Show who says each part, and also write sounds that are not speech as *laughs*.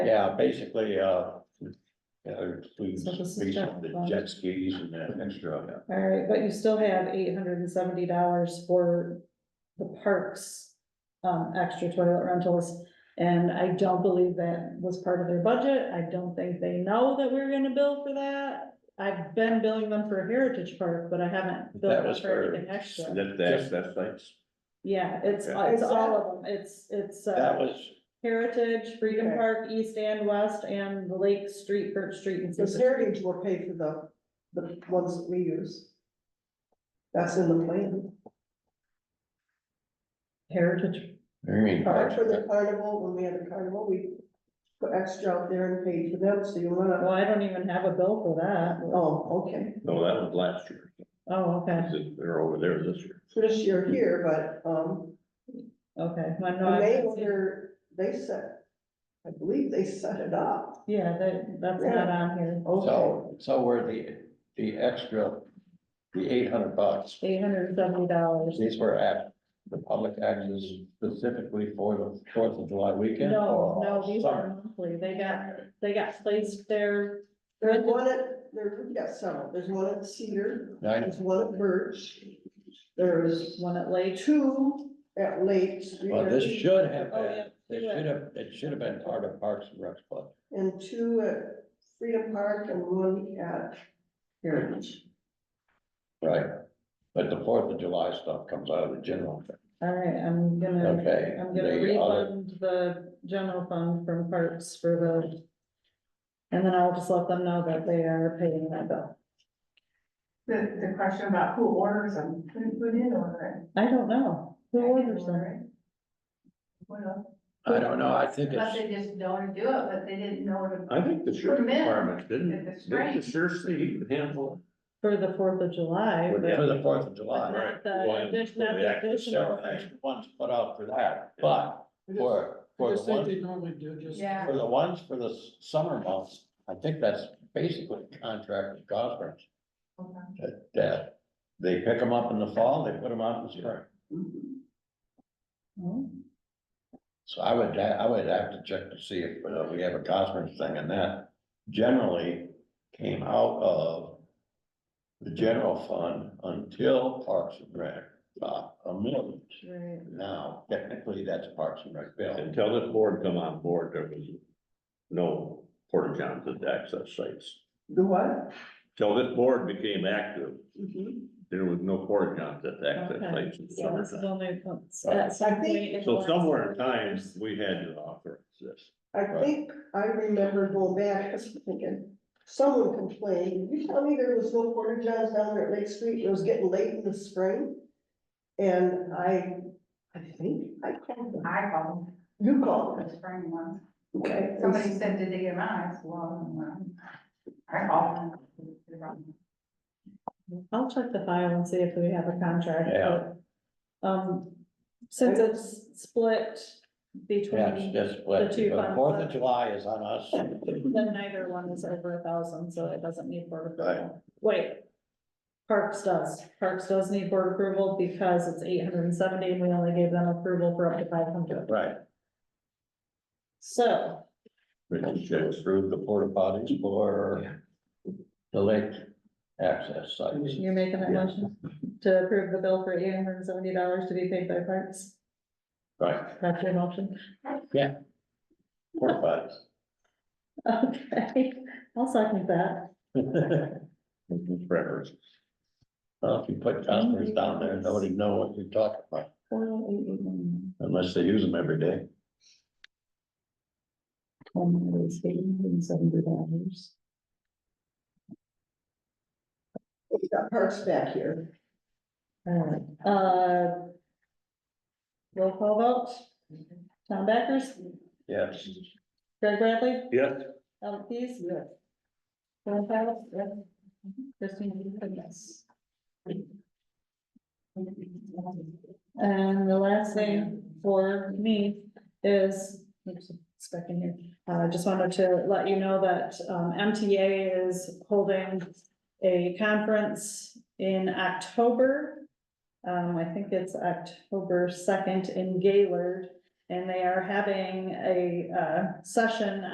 Speaker 1: Yeah, basically, uh. Yeah, we,
Speaker 2: So this is
Speaker 1: we,
Speaker 2: general
Speaker 1: the
Speaker 2: fund.
Speaker 1: jet skis and that extra,
Speaker 2: All right, but you still have eight hundred and seventy dollars for the parks, um, extra toilet rentals. And I don't believe that was part of their budget. I don't think they know that we're gonna bill for that. I've been billing them for Heritage Park, but I haven't billed
Speaker 1: that
Speaker 2: them
Speaker 1: was
Speaker 2: for
Speaker 1: for.
Speaker 2: anything extra.
Speaker 1: That, that's, that's like,
Speaker 2: Yeah, it's,
Speaker 1: Okay.
Speaker 2: it's all of them. It's, it's,
Speaker 1: that
Speaker 2: uh,
Speaker 1: was,
Speaker 2: Heritage, Freedom
Speaker 3: Okay.
Speaker 2: Park, East and West, and the Lake Street, Birch Street and.
Speaker 3: Because
Speaker 2: Cedar.
Speaker 3: Heritage will pay for the, the ones that we use. That's in the plan.
Speaker 2: Heritage
Speaker 1: I mean.
Speaker 3: Part for the carnival, when we had the carnival, we put extra out there and paid for them, so you wanna,
Speaker 2: Well, I don't even have a bill for that.
Speaker 3: oh, okay.
Speaker 1: No, that was last year,
Speaker 2: Oh, okay,
Speaker 1: they're over there this year.
Speaker 3: For this year here, but, um,
Speaker 2: okay. Well, no,
Speaker 3: and they
Speaker 2: I-
Speaker 3: were, they set, I believe they set it up.
Speaker 2: Yeah, that, that's not on here.
Speaker 3: Okay,
Speaker 1: So, so were the, the extra, the eight hundred bucks,
Speaker 2: Eight hundred and seventy dollars.
Speaker 1: these were at the public access specifically for the Fourth of July weekend? Oh, or
Speaker 2: No, no, these
Speaker 1: summer?
Speaker 2: are monthly. They got, they got placed there.
Speaker 3: there's one at, there, we got several, there's one at Cedar,
Speaker 1: Nine,
Speaker 3: there's one at Birch, there's
Speaker 2: One at Lake.
Speaker 3: two at Lake Street.
Speaker 1: well, this should have
Speaker 2: Oh,
Speaker 1: been, it
Speaker 2: yeah, do it.
Speaker 1: should have, it should have been part of Parks and Rec Club.
Speaker 3: And two at Freedom Park and one at Heritage.
Speaker 1: Right, but the Fourth of July stuff comes out of the general, fund,
Speaker 2: All right, I'm gonna,
Speaker 1: okay?
Speaker 2: Mm, I'm gonna
Speaker 1: The other-
Speaker 2: refund the general fund from parks for the. And then I'll just let them know that they are paying that bill.
Speaker 4: The, the question about who orders them, who, who did order
Speaker 2: I don't know.
Speaker 4: it?
Speaker 2: Who orders them?
Speaker 4: Well,
Speaker 1: I don't know, I think
Speaker 4: but
Speaker 1: it's,
Speaker 4: they just don't do it, but they didn't know to.
Speaker 5: I think the sheriff
Speaker 4: Permit.
Speaker 5: department
Speaker 4: If
Speaker 5: didn't,
Speaker 4: it's
Speaker 5: didn't
Speaker 4: right.
Speaker 5: the sheriff say he could handle?
Speaker 2: For the Fourth of July,
Speaker 5: Well,
Speaker 2: but
Speaker 5: yeah.
Speaker 1: for the Fourth of
Speaker 2: but
Speaker 1: July.
Speaker 2: not the, addition- not
Speaker 1: The
Speaker 2: the
Speaker 1: extra
Speaker 2: additional.
Speaker 1: several extra Ones put out for that, but for, for the ones,
Speaker 5: normally do just.
Speaker 4: Yeah,
Speaker 1: for the ones for the s- summer months, I think that's basically contract with conference.
Speaker 4: Okay.
Speaker 1: That, that they pick them up in the fall, they put them out in the spring.
Speaker 2: Hmm.
Speaker 1: So I would, I would have to check to see if uh, we have a conference thing and that generally came out of the general fund until Parks and Rec, uh, a million.
Speaker 2: Right.
Speaker 1: Now, technically, that's Parks and Rec bill.
Speaker 5: Until this board come on board, there was no porta johns at the access sites.
Speaker 3: The what?
Speaker 5: Till this board became active,
Speaker 3: Mhm.
Speaker 5: there was no porta johns at the access
Speaker 2: Okay,
Speaker 5: sites. in the
Speaker 2: so this is
Speaker 5: summertime.
Speaker 2: only, at some point. it
Speaker 5: So
Speaker 2: was-
Speaker 5: somewhere in time, we had to authorize this.
Speaker 3: I think I remember going back, I was thinking, someone complained, you tell me there was no porta johns down there at Lake Street, it was getting late in the spring. And I, I think I called them,
Speaker 4: I called
Speaker 3: you
Speaker 4: them
Speaker 3: called
Speaker 4: for
Speaker 3: them,
Speaker 4: the spring ones.
Speaker 3: okay?
Speaker 4: Somebody said, did they get mine? I said, well, I don't know. I called them. They brought them.
Speaker 2: I'll check the file and see if we have a contract.
Speaker 1: Yeah.
Speaker 2: but, Um, since it's split
Speaker 1: Yeah, it's
Speaker 2: between,
Speaker 1: just what,
Speaker 2: The two
Speaker 1: the
Speaker 2: funds.
Speaker 1: Fourth of July is on us.
Speaker 2: then neither one is over a thousand, so it doesn't need board
Speaker 1: Right.
Speaker 2: approval. Wait. Parks does, Parks does need board approval because it's eight hundred and seventy and we only gave them approval for up to five hundred.
Speaker 1: Right.
Speaker 2: So,
Speaker 1: Richard should approve the porta potties for the lake access sites.
Speaker 2: you're making that motion to approve the bill for eight hundred and seventy dollars to be paid by Parks?
Speaker 1: Right,
Speaker 2: That's your motion? *laughs*
Speaker 1: porta potties.
Speaker 2: Okay, I'll second that.
Speaker 5: Preference.
Speaker 1: Well, uh, if you put customers down there, nobody know what you're talking about
Speaker 2: Four, eight, eight, nine,
Speaker 1: unless they use them every day.
Speaker 2: ten, it was eight hundred and seventy dollars.
Speaker 3: We got parks back here.
Speaker 2: Alright, uh. Roll call vote, Tom Backers,
Speaker 1: Yes.
Speaker 2: Greg Bradley,
Speaker 5: Yes.
Speaker 2: Alan Keys.
Speaker 3: Yes.
Speaker 2: John Powell, yes. Christine, Reed, yes. And the last thing for me is, oops, it's back in here. Uh, I just wanted to let you know that, um, MTA is holding a conference in October. Um, I think it's October second in Gaylord, and they are having a, uh, session